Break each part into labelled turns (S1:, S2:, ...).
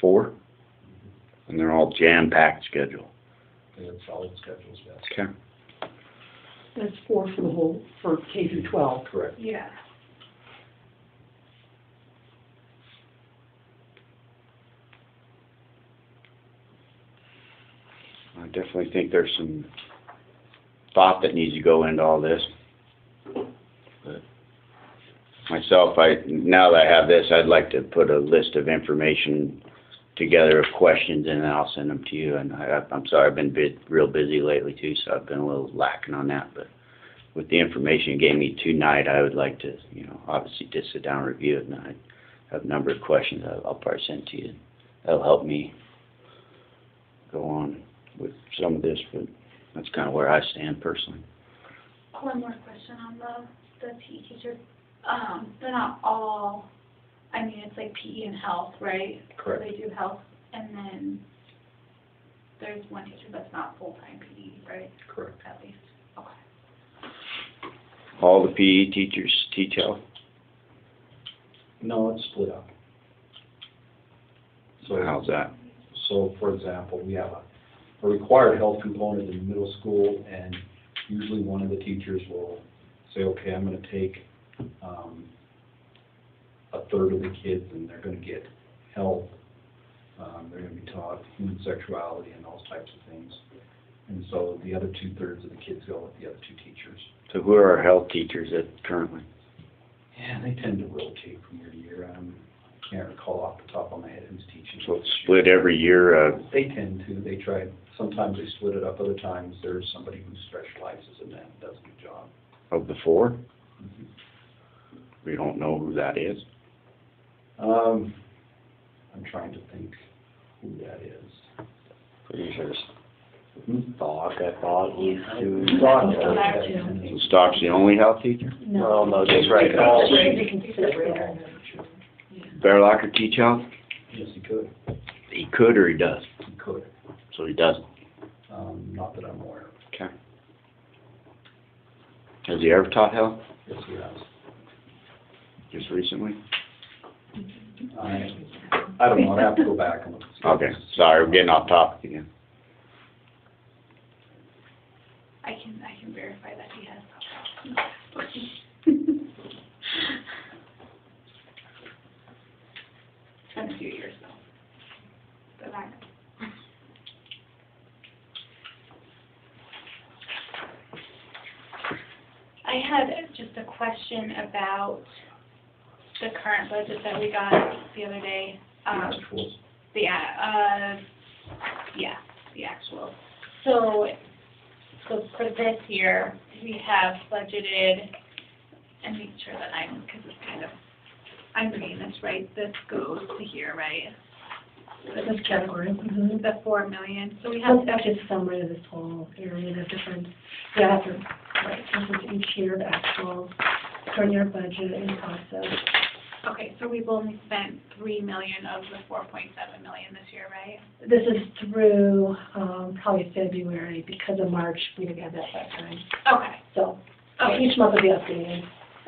S1: four, and they're all jam-packed schedule.
S2: They have solid schedules, yes.
S1: Okay.
S3: That's four for the whole, for K through twelve.
S2: Correct.
S4: Yeah.
S1: I definitely think there's some thought that needs to go into all this. But Myself, I, now that I have this, I'd like to put a list of information together of questions and then I'll send them to you. And I, I'm sorry, I've been bit, real busy lately too, so I've been a little lacking on that, but with the information you gave me tonight, I would like to, you know, obviously just sit down and review it and I have a number of questions I'll, I'll probably send to you. That'll help me go on with some of this, but that's kind of where I stand personally.
S4: One more question on the, the PE teacher. Um, they're not all, I mean, it's like PE and health, right?
S2: Correct.
S4: They do health, and then there's one teacher that's not full-time PE, right,
S2: Correct.
S4: at least? Okay.
S1: All the PE teachers teach health.
S2: No, it's split up. So,
S1: How's that?
S2: so for example, we have a, a required health component in middle school, and usually one of the teachers will say, okay, I'm gonna take, um, a third of the kids, and they're gonna get health, um, they're gonna be taught human sexuality and those types of things. And so the other two-thirds of the kids go with the other two teachers.
S1: So who are our health teachers at currently?
S2: Yeah, they tend to rotate from year to year. Um, I can't recall off the top of my head who's teaching.
S1: So it's split every year, uh,
S2: They tend to. They try, sometimes they split it up, other times there's somebody who specializes in that, and does a good job.
S1: of the four? We don't know who that is.
S2: Um, I'm trying to think who that is.
S1: Pretty sure it's
S2: Hmm?
S1: Stock, I thought
S2: Brock, uh,
S3: Brock,
S2: yeah.
S3: yeah.
S1: So Stock's the only health teacher?
S3: No.
S5: no,
S1: just right now.
S3: That's right, they can separate them.
S1: Bearlocker teach health?
S2: Yes, he could.
S1: He could or he does,
S2: He could.
S1: so he doesn't.
S2: Um, not that I'm aware of.
S1: Okay. Has he ever taught health?
S2: Yes, he has.
S1: Just recently?
S2: I, I don't know. I'd have to go back and look. and see.
S1: Okay, sorry, we're getting off topic again.
S4: I can, I can verify that he has. It's been a few years though. But I, I had just a question about the current budget that we got the other day. Um,
S2: Actual.
S4: the, a- uh, yeah, the actual. So, so for this year, we have budgeted, and make sure that I'm, because it's kind of, I'm reading this right, this goes to here, right?
S6: This category.
S3: Mm-hmm.
S6: mhm.
S4: The four million, so we have
S6: That's actually a summary of this whole area, the different, yeah, that's a- right, this is each year, the actual current year budget and process.
S4: Okay, so we've only spent three million of the four point seven million this year, right?
S6: This is through, um, probably February, because of March, we didn't have that that time.
S4: Okay,
S6: So
S4: okay,
S6: each month will be updated.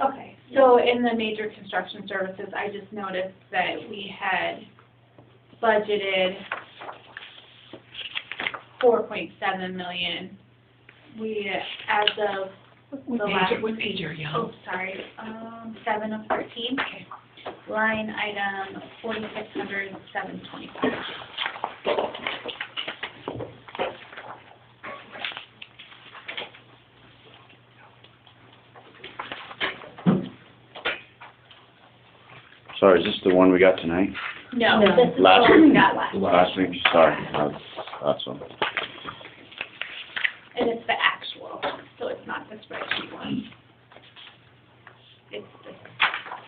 S4: okay. So in the major construction services, I just noticed that we had budgeted four point seven million. We, as of
S3: What
S4: The
S3: page,
S4: last-
S3: what page are you on?
S4: Oh, sorry, um, seven of thirteen. Line item forty-six hundred seven twenty-five.
S1: Sorry, is this the one we got tonight?
S4: No,
S6: No.
S4: this is
S1: Last
S4: what we
S1: week.
S4: got last.
S1: Last week, sorry, uh, that's one.
S4: And it's the actual, so it's not the spreadsheet one. It's the,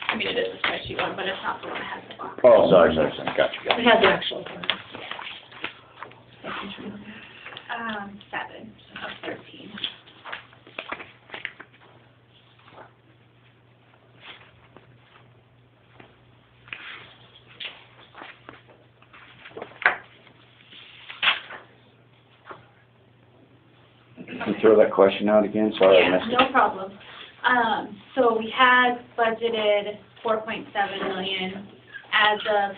S4: I mean, it is the spreadsheet one, but it's not the one that has the box.
S1: Oh, sorry, sorry, sorry, gotcha,
S6: We
S1: gotcha.
S6: have the actual plan.
S4: Um, seven of thirteen.
S1: Can you throw that question out again? Sorry, I
S4: Yeah,
S1: missed it.
S4: no problem. Um, so we had budgeted four point seven million as of